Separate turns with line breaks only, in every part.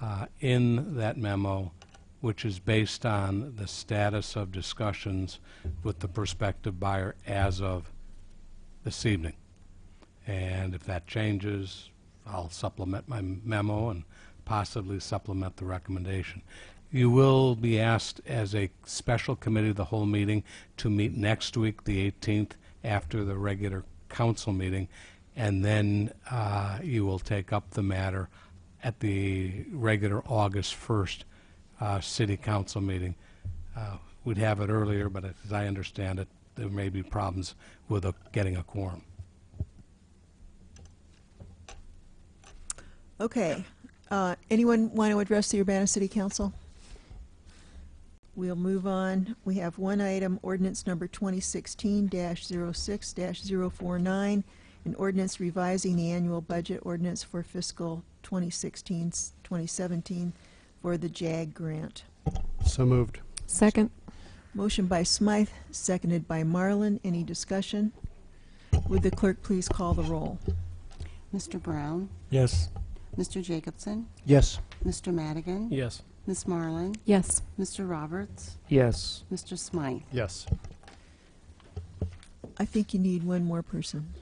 uh, in that memo, which is based on the status of discussions with the prospective buyer as of this evening. And if that changes, I'll supplement my memo and possibly supplement the recommendation. You will be asked as a special committee of the whole meeting to meet next week, the 18th, after the regular council meeting, and then uh, you will take up the matter at the regular August 1st uh, city council meeting. Uh, We'd have it earlier, but as I understand it, there may be problems with a- getting a quorum.
Okay. Uh, Anyone want to address the Urbana City Council? We'll move on. We have one item, ordinance number 2016-06-049, an ordinance revising the annual budget ordinance for fiscal 2016-2017 for the JAG grant.
So moved.
Second.
Motion by Smythe, seconded by Marlin. Any discussion? Would the clerk please call the roll?
Mr. Brown,
Yes.
Mr. Jacobson,
Yes.
Mr. Madigan,
Yes.
Miss Marlin,
Yes.
Mr. Roberts,
Yes.
Mr. Smythe.
Yes.
I think you need one more person.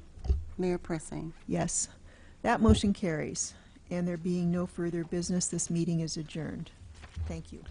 Mayor Pressing.
Yes. That motion carries. And there being no further business, this meeting is adjourned. Thank you.